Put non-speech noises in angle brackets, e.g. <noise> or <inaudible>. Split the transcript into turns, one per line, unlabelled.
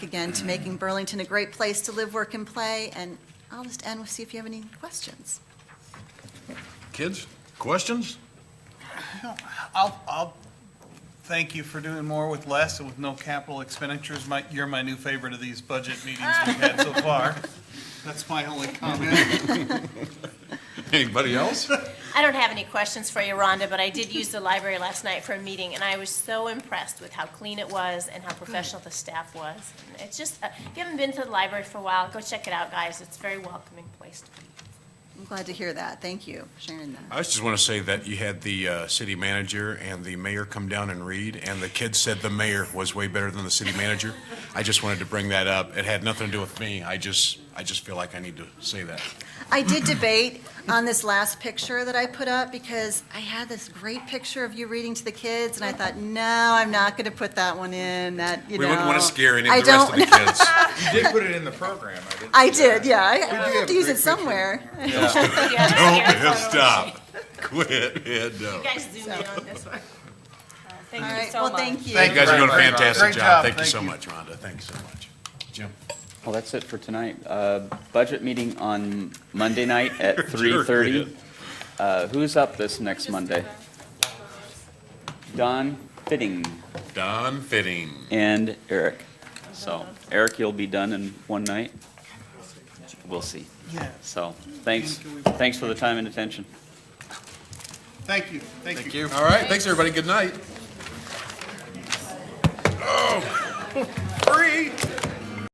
again to making Burlington a great place to live, work, and play. And I'll just end with, see if you have any questions.
Kids, questions? <laughs>
I'll, I'll thank you for doing more with less and with no capital expenditures. My, you're my new favorite of these budget meetings we've had so far. <laughs> That's my only comment.
Anybody else?
I don't have any questions for you, Rhonda, but I did use the library last night for a meeting, and I was so impressed with how clean it was and how professional the staff was. And It's just, uh, if you haven't been to the library for a while, go check it out, guys. It's a very welcoming place to be.
I'm glad to hear that. Thank you for sharing that.
I just want to say that you had the uh, city manager and the mayor come down and read, and the kids said the mayor was way better than the city manager. I just wanted to bring that up. It had nothing to do with me. I just, I just feel like I need to say that.
I did debate on this last picture that I put up because I had this great picture of you reading to the kids, and I thought, no, I'm not going to put that one in. That you
We
know.
wouldn't want to scare any
I
of the rest of the
don't-
kids.
You did put it in the program, I didn't.
<laughs> I did, yeah. I-
do
I
have
have to
a
use
great
it
picture.
somewhere.
Yeah, it's
Don't
scary.
yeah, stop. Quit. Yeah, no.
You guys zoom in on
<laughs>
this one. Uh,
All
Thank you
right,
so
well,
much.
thank you.
You guys are doing a fantastic
Great job.
job. Thank you
Thank
so
you.
much, Rhonda. Thank you so much. Jim?
Well, that's it for tonight. Uh, Budget meeting on Monday night at
Sure,
3:30.
it
Uh, Who's up this next Monday? Don Fitting
Don Fitting.
and Eric. So Eric, you'll be done in one night? We'll see.
Yeah.
So, thanks, thanks for the time and attention.
Thank you, thank you.
All right, thanks, everybody. Good night. Oh, <laughs> free.